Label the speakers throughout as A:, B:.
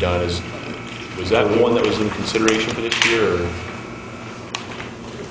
A: John, is, was that one that was in consideration for this year, or?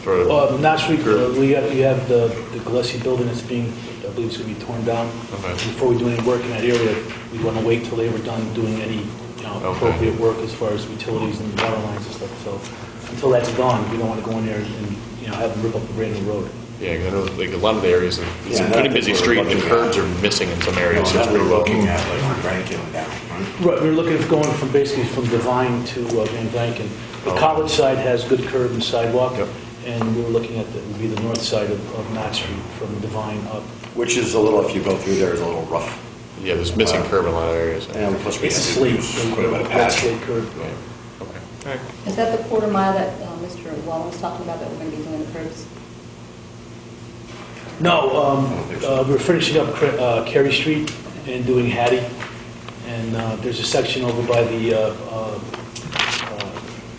A: For,
B: Well, not street, uh, we have, you have the the Gillespie building that's being, I believe it's going to be torn down.
A: Okay.
B: Before we do any work in that area, we want to wait till they were done doing any, you know,
A: Okay.
B: appropriate work as far as utilities and water lines and stuff. So until that's gone, we don't want to go in there and, you know, have them rip up a brand new road.
A: yeah, 'cause I know, like, a lot of the areas, it's
C: Yeah,
A: a
C: that-
A: pretty busy
C: that's what
A: street,
C: we're
A: and the
C: looking at.
A: curbs are missing in some areas, so
C: Areas
A: it's
C: that
A: pretty
C: we're
A: rough.
C: looking at, like on Rankin down, right?
B: Right, we're looking at going from, basically from Divine to uh, Van Vanken. The college side has good curb and sidewalk,
A: Yep.
B: and we were looking at, that would be the north side of of Knott Street from Divine up.
C: Which is a little, if you go through there, is a little rough.
A: Yeah, there's missing curb in a lot of areas.
C: And plus we
B: It's a
C: had to
B: slate,
C: use quite a bit of
B: red
C: patch.
B: slate curb.
A: Yeah, okay. All right.
D: Is that the quarter mile that uh, Mr. Wallen was talking about, that we're going to be doing the curbs?
B: No, um,
C: I don't think so.
B: uh, we're finishing up Cra- uh, Carey Street and doing Hattie, and uh, there's a section over by the uh, uh, uh,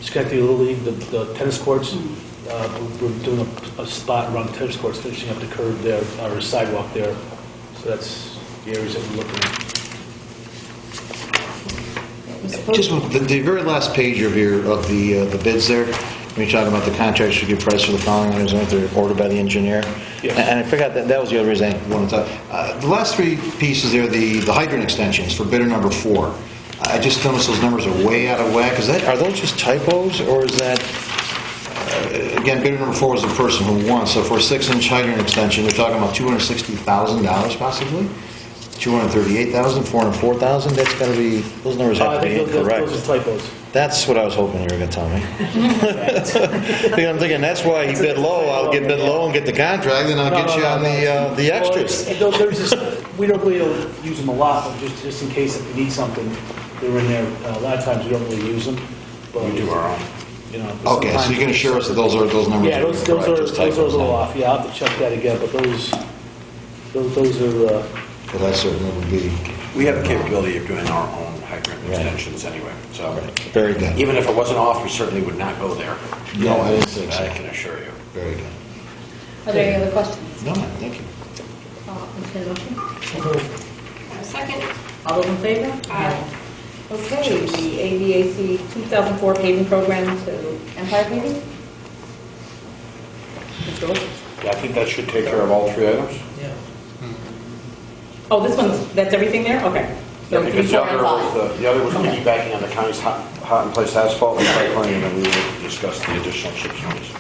B: Schenectady Little League, the- the tennis courts. Uh, We're we're doing a- a spot around the tennis courts, finishing up the curb there, or sidewalk there. So that's the areas that we're looking at.
E: Just one- the, the very last page of your, of the, uh, the bids there, when you're talking about the contracts should give price for the following items, and they're ordered by the engineer.
B: Yes.
E: And I forgot, that, that was the other reason I wanted to, uh, the last three pieces there, the, the hydrant extensions for bidder number four. I just noticed those numbers are way out of whack. Is that, are those just typos, or is that, uh, again, bidder number four was the person who won, so for a six-inch hydrant extension, we're talking about $260,000 possibly? 238,000, 404,000, that's gotta be, those numbers
B: Uh,
E: have
B: I
E: to be
B: think those-
E: incorrect.
B: Those are typos.
E: That's what I was hoping you were going to tell me. Because I'm thinking, that's why he bid low, I'll get bid low and get the contract, and I'll
B: No,
E: get
B: no,
E: you
B: no,
E: on the,
B: no.
E: uh, the
B: Well,
E: extras.
B: it's- though there's this- We don't really don't use them a lot, but just, just in case if we need something, they're in there. Uh, A lot of times we don't really use them, but.
C: We do our own.
B: You know.
E: Okay, so
B: sometimes-
E: you can assure us that those are, those numbers
B: Yeah,
E: are
B: those,
E: correct?
B: those are,
E: just
B: those are a
E: typos
B: little
E: now.
B: off, yeah, I'll have to check that again, but those, those, those are, uh,
E: But that certainly would be,
C: We have the capability of doing our own hydrant
E: Right.
C: extensions anyway, so.
E: very good,
C: Even if it wasn't off, we certainly would not go there.
E: No, I didn't think so.
C: I can assure you.
E: very good.
D: Are there any other questions?
E: No, thank you.
D: Uh, entertain a motion? Second. All those in favor? Aye. Okay, the ABAC 2004 paving program to Empire paving? Mr. Wilson?
C: Yeah, I think that should take care of all three items.
D: Oh, this one's, that's everything there? Okay.
C: Yeah,
D: So three,
C: Because the
D: four, and
C: other was,
D: five.
C: the- the other was
D: Okay.
C: piggybacking on the county's hot, hot in place asphalt recycling, and then we will discuss the additional chips notice.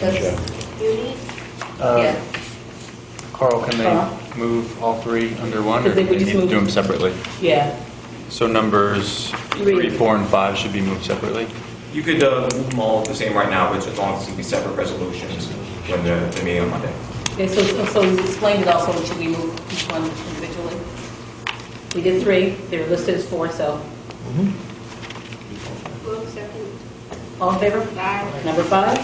D: That's-
F: Uh,
D: Yeah.
F: Carl, can
D: Carl?
F: they move all three under one, or
D: Because they
F: do
D: would
F: they
D: just
F: need to
D: move-
F: do them separately?
D: Yeah.
F: So numbers
D: Three.
F: three, four, and five should be moved separately?
G: You could uh, move them all the same right now, but as long as it be separate resolutions when the the meeting on Monday.
D: Okay, so, so- so you explained it also, should we move each one individually? We did three, they were listed as four, so,
H: Move second.
D: all in favor?
H: Aye.
D: Number five,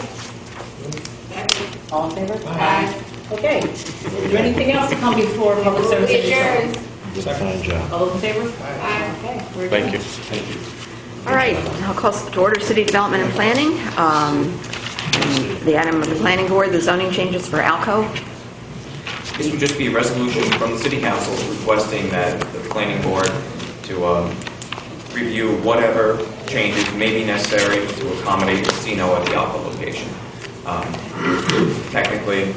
H: Second.
D: all in favor?
H: Aye.
D: Okay, is there anything else to come before public
H: Move
D: service?
H: adjourned.
E: You did a fine job.
D: All those in favor?
H: Aye.
D: Okay. we're
A: Thank
D: adjourned.
A: you.
I: All right, I'll call to order City Development and Planning. Um, The item of the planning board, the zoning changes for Alco.
G: This would just be a resolution from the city council requesting that the planning board to um, review whatever changes may be necessary to accommodate casino at the Alpha location. Um, Technically,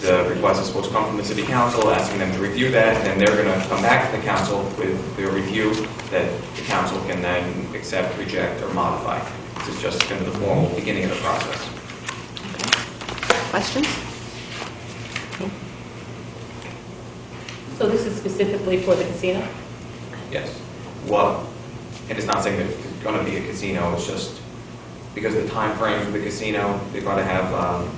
G: the request is supposed to come from the city council, asking them to review that, and then they're going to come back to the council with their review that the council can then accept, reject, or modify. This is just kind of the formal beginning of the process.
I: Questions?
D: So this is specifically for the casino?
G: Yes. Well, and it's not saying that it's going to be a casino, it's just because of the timeframe for the casino, they're going to have, um,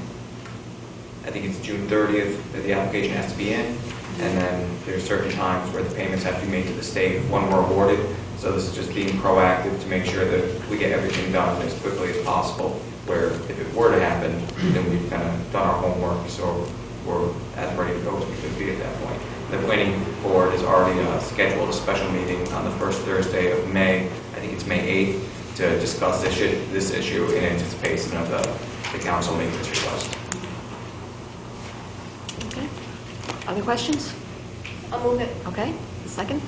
G: I think it's June 30th that the application has to be in, and then there's certain times where the payments have to be made to the state when we're awarded. So this is just being proactive to make sure that we get everything done as quickly as possible, where if it were to happen, then we've kind of done our homework, so we're as ready to go as we could be at that point. The planning board has already uh, scheduled a special meeting on the first Thursday of May, I think it's May 8th, to discuss this issue, this issue in anticipation of uh, the, the council making this request.
I: Okay. Other questions?
H: I'll move it.
I: Okay, second?